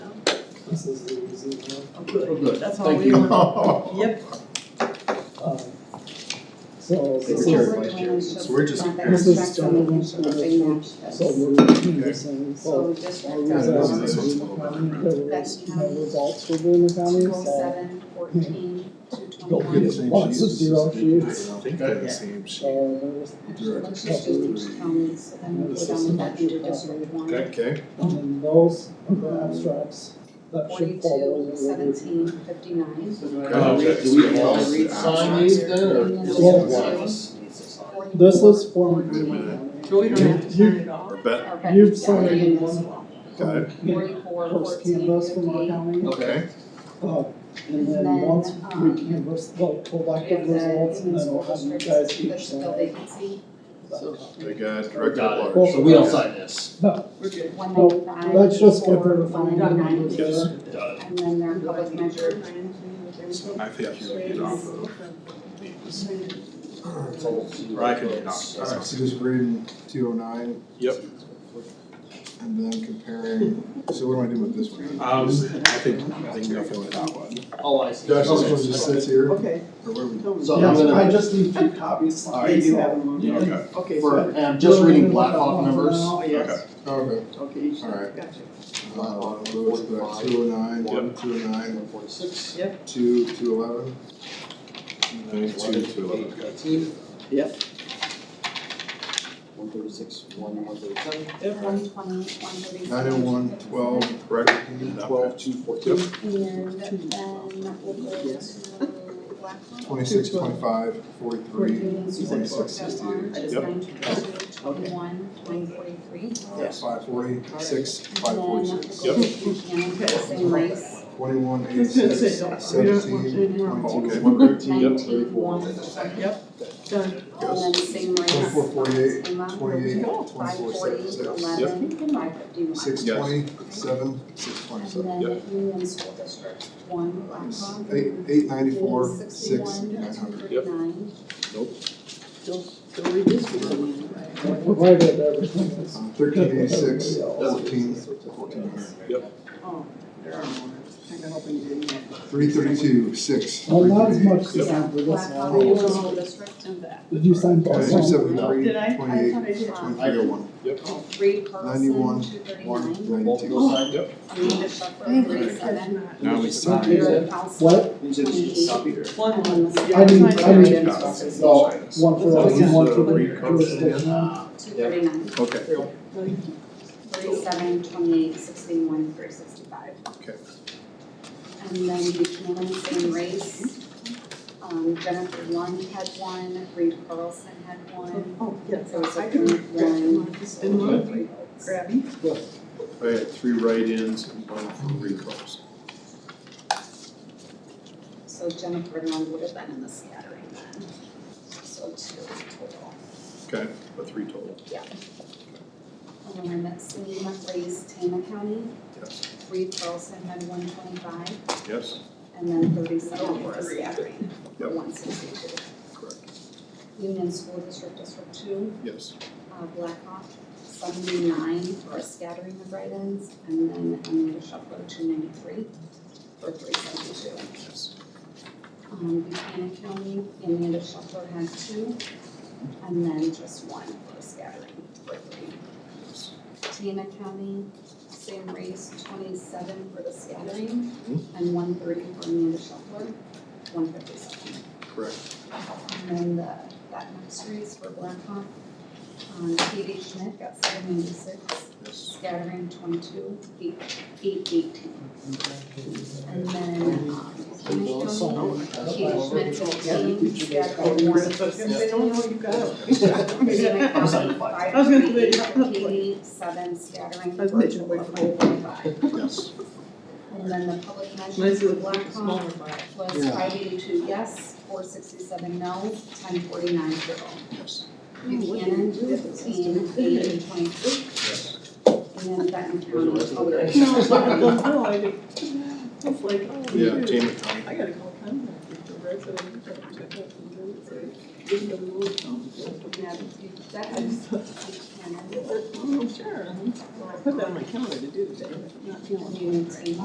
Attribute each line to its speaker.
Speaker 1: This is the easy one.
Speaker 2: Oh,
Speaker 3: We're
Speaker 2: good,
Speaker 3: good.
Speaker 2: that's all
Speaker 3: Thank
Speaker 2: we
Speaker 3: you.
Speaker 2: want. Yep,
Speaker 1: Um, So this
Speaker 3: Secretary,
Speaker 1: is,
Speaker 3: Vice Chair.
Speaker 4: So we're um, just-
Speaker 1: This is, uh, so
Speaker 4: So
Speaker 1: we're reducing,
Speaker 4: So
Speaker 1: so uh,
Speaker 4: district
Speaker 1: our
Speaker 4: of
Speaker 1: results
Speaker 4: This is
Speaker 1: for
Speaker 4: what's
Speaker 1: Boone County,
Speaker 4: going on.
Speaker 1: the res- the results for Boone County,
Speaker 4: two oh
Speaker 1: so.
Speaker 4: seven fourteen two
Speaker 1: Don't
Speaker 4: twenty-one.
Speaker 1: get lots of zero sheets. uh,
Speaker 4: I
Speaker 3: think
Speaker 1: they're the
Speaker 3: same
Speaker 1: So
Speaker 4: Let's just do each county, so then we'll go down with that into district one.
Speaker 3: Okay.
Speaker 1: And then those are the abstracts that should follow.
Speaker 4: Forty-two
Speaker 1: the review.
Speaker 4: seventeen fifty-nine.
Speaker 3: Uh, we- do we all sign these then, or
Speaker 4: Yeah.
Speaker 3: just one of us?
Speaker 1: This is for.
Speaker 2: so we don't have to turn it off.
Speaker 4: Or
Speaker 5: bet.
Speaker 4: Okay.
Speaker 1: You've
Speaker 4: yeah,
Speaker 1: signed
Speaker 4: we're doing
Speaker 1: one.
Speaker 4: this one.
Speaker 5: Got it.
Speaker 4: Forty-four
Speaker 1: First
Speaker 4: fourteen
Speaker 1: canvas from our
Speaker 4: fifty-eight.
Speaker 1: county.
Speaker 3: Okay.
Speaker 1: Uh, And then
Speaker 4: And then,
Speaker 1: once we
Speaker 4: um,
Speaker 1: canvass the
Speaker 4: We have
Speaker 1: collective
Speaker 4: the
Speaker 1: results, then
Speaker 4: human
Speaker 1: we'll
Speaker 4: school
Speaker 1: have you
Speaker 4: districts,
Speaker 1: guys each
Speaker 4: that's still
Speaker 1: sign.
Speaker 4: vacancy,
Speaker 5: They got director
Speaker 3: Got
Speaker 5: at
Speaker 3: it.
Speaker 5: large.
Speaker 3: So we all sign this.
Speaker 2: We're good.
Speaker 4: one
Speaker 1: No,
Speaker 4: ninety-five.
Speaker 1: Let's just get
Speaker 4: four,
Speaker 1: rid of
Speaker 4: one
Speaker 1: all the numbers
Speaker 4: ninety-nine.
Speaker 1: there.
Speaker 3: Got it.
Speaker 4: And then their public measure.
Speaker 5: So I think you would get off of these.
Speaker 3: Or
Speaker 6: Alright, so just reading two oh nine
Speaker 5: Yep.
Speaker 6: and then comparing, so what do I do with this one?
Speaker 5: Um, I think, I think nothing with that one.
Speaker 3: Oh, I see.
Speaker 6: Josh, this
Speaker 3: Okay.
Speaker 6: one just sits here, or
Speaker 2: Okay.
Speaker 6: where we?
Speaker 3: So I'm
Speaker 1: Yes, I
Speaker 3: gonna,
Speaker 1: just need two copies,
Speaker 3: All
Speaker 1: they
Speaker 3: right.
Speaker 1: do have them.
Speaker 3: Yeah.
Speaker 5: Okay.
Speaker 2: Okay,
Speaker 3: for,
Speaker 2: so,
Speaker 3: and I'm just reading Black Hawk numbers.
Speaker 2: oh, yes,
Speaker 6: Okay.
Speaker 2: okay, each,
Speaker 6: All right.
Speaker 2: gotcha.
Speaker 6: Uh, Lewis, but two oh nine, one, two oh nine,
Speaker 3: One forty-six.
Speaker 6: two, two eleven.
Speaker 5: Nine, two, two, eleven.
Speaker 3: Eighteen.
Speaker 2: Yep.
Speaker 3: One thirty-six, one, one thirty-seven.
Speaker 4: One twenty, one thirty-six.
Speaker 6: Nine oh one, twelve, correct, twelve,
Speaker 5: two, fourteen.
Speaker 4: And then we'll go
Speaker 2: Yes.
Speaker 4: to Blackmore.
Speaker 6: twenty-six, twenty-five, forty-three, twenty-six,
Speaker 4: One,
Speaker 6: sixty-eight.
Speaker 2: I just-
Speaker 5: Yep.
Speaker 4: nine twenty-two,
Speaker 2: Okay.
Speaker 4: twenty-one, nine forty-three.
Speaker 6: Uh, five forty, six, five
Speaker 4: And then we'll
Speaker 6: forty-six.
Speaker 4: go to Buchanan,
Speaker 2: Yep.
Speaker 4: same race.
Speaker 6: Twenty-one,
Speaker 2: I
Speaker 6: eight,
Speaker 2: was gonna
Speaker 6: six,
Speaker 2: say, don't- we
Speaker 6: seventeen,
Speaker 2: don't want any more.
Speaker 6: twenty-two,
Speaker 5: Okay.
Speaker 6: one thirteen,
Speaker 4: Nineteen,
Speaker 6: thirty-four.
Speaker 4: one, twenty,
Speaker 2: Done.
Speaker 4: and then same race.
Speaker 6: Twenty-four, forty-eight,
Speaker 4: Same amount.
Speaker 6: Twenty-eight,
Speaker 4: Five
Speaker 6: twenty-four,
Speaker 4: forty,
Speaker 6: seven, six.
Speaker 4: eleven, five fifty-one.
Speaker 6: Six
Speaker 5: Yes.
Speaker 6: twenty, seven, six
Speaker 4: And
Speaker 6: twenty-seven.
Speaker 4: then Union School District, one, Blackhawk.
Speaker 6: Eight, eight ninety-four, six, nine hundred.
Speaker 5: Yep.
Speaker 4: Nine,
Speaker 2: Don't, don't read this one.
Speaker 1: Provided everything is.
Speaker 6: Thirteen eighty-six,
Speaker 1: Everybody
Speaker 6: fourteen,
Speaker 1: else.
Speaker 6: fourteen hundred.
Speaker 2: Oh, there are more, I can open it in.
Speaker 6: Three thirty-two, six,
Speaker 1: Well,
Speaker 6: three
Speaker 1: not as much
Speaker 6: thirty-eight.
Speaker 1: as
Speaker 4: yeah,
Speaker 1: that, but that's
Speaker 4: Blackhawk,
Speaker 1: all.
Speaker 4: Union School District, and that.
Speaker 1: Did you sign both?
Speaker 6: Okay,
Speaker 1: of
Speaker 6: two
Speaker 1: them?
Speaker 6: seventy-three,
Speaker 2: Did I? I
Speaker 6: twenty-eight,
Speaker 2: thought I did.
Speaker 6: twenty-three oh one.
Speaker 4: Three Carlson,
Speaker 6: Ninety-one,
Speaker 4: two
Speaker 6: One,
Speaker 4: thirty-nine.
Speaker 6: ninety-two.
Speaker 5: Yep.
Speaker 4: Amanda Shepherd, three seven.
Speaker 5: Now we
Speaker 1: sign.
Speaker 4: Vera House,
Speaker 1: What?
Speaker 2: One, one. yeah,
Speaker 1: I didn't-
Speaker 2: it's
Speaker 1: I
Speaker 2: not
Speaker 1: didn't-
Speaker 2: Indian
Speaker 5: Got it.
Speaker 2: sausage.
Speaker 1: No, one for us and one for
Speaker 5: So,
Speaker 1: the
Speaker 5: we covered it.
Speaker 1: jurisdiction.
Speaker 4: two thirty-nine,
Speaker 5: Okay.
Speaker 4: three seven, twenty-eight, sixty-one, three sixty-five.
Speaker 5: Okay.
Speaker 4: And then Buchanan, same race. Um, Jennifer Lund had one, Reed Carlson had one,
Speaker 2: Oh, yes,
Speaker 4: so it's
Speaker 2: I
Speaker 4: a
Speaker 2: can
Speaker 4: three,
Speaker 2: grab
Speaker 4: one.
Speaker 2: one, just in one, grab it.
Speaker 5: I had three write-ins and one for recalls.
Speaker 4: So Jennifer Lund would have been in the scattering then. So two total.
Speaker 5: Okay, but three total.
Speaker 4: And that's Selena Ray's Tama County.
Speaker 5: Yes.
Speaker 4: Reed Carlson had one twenty-five.
Speaker 5: Yes,
Speaker 4: And then thirty-seven for a scattering, for
Speaker 5: Yep.
Speaker 4: one sixty-two.
Speaker 5: correct.
Speaker 4: Union School District, District Two,
Speaker 5: Yes.
Speaker 4: uh, Blackhawk, seventy-nine for a scattering of write-ins, and then Amanda Shuffler, two ninety-three for three seventy-two.
Speaker 5: Yes.
Speaker 4: Um, Buchanan County, Amanda Shuffler had two, and then just one for a scattering for three. Tama County, same race, twenty-seven for the scattering, and one thirty for Amanda Shuffler, one fifty-seven.
Speaker 5: Correct.
Speaker 4: And then the, that next race for Blackhawk, um, Katie Schmidt got seven ninety-six,
Speaker 5: Yes.
Speaker 4: scattering twenty-two, eight, eight eighteen. And then, um, Buchanan County, Katie Schmidt fifteen, scattering one sixty-six.
Speaker 2: They don't know you got it.
Speaker 4: Buchanan County,
Speaker 3: sorry.
Speaker 4: five
Speaker 2: I was gonna say,
Speaker 4: thirty-eight,
Speaker 2: yeah.
Speaker 4: Katie, seven, scattering
Speaker 2: I was
Speaker 4: for a
Speaker 2: making a
Speaker 4: total
Speaker 2: wait
Speaker 4: of
Speaker 2: for
Speaker 4: one forty-five.
Speaker 5: Yes.
Speaker 4: And then the public measure
Speaker 2: Nice
Speaker 4: for
Speaker 2: little
Speaker 4: Blackhawk,
Speaker 2: smaller box.
Speaker 4: was
Speaker 6: Yeah.
Speaker 4: five eighty-two yes, four sixty-seven no, ten forty-nine zero.
Speaker 5: Yes.
Speaker 4: Buchanan, fifteen, eight twenty-two,
Speaker 5: Yes.
Speaker 4: and then Benton County.
Speaker 3: There's a rest of the
Speaker 4: okay.
Speaker 2: No, no, I didn't. It's like, oh,
Speaker 5: Yeah,
Speaker 2: you-
Speaker 5: Tama County.
Speaker 2: I gotta call contact with the resident, and check it out, and then it's like, give them a little something.
Speaker 4: Yeah, you- that
Speaker 2: I
Speaker 4: is
Speaker 2: just thought,
Speaker 4: Buchanan,
Speaker 2: oh, sure, I put that on my calendar to do today, but I'm not feeling it.
Speaker 4: Union Team.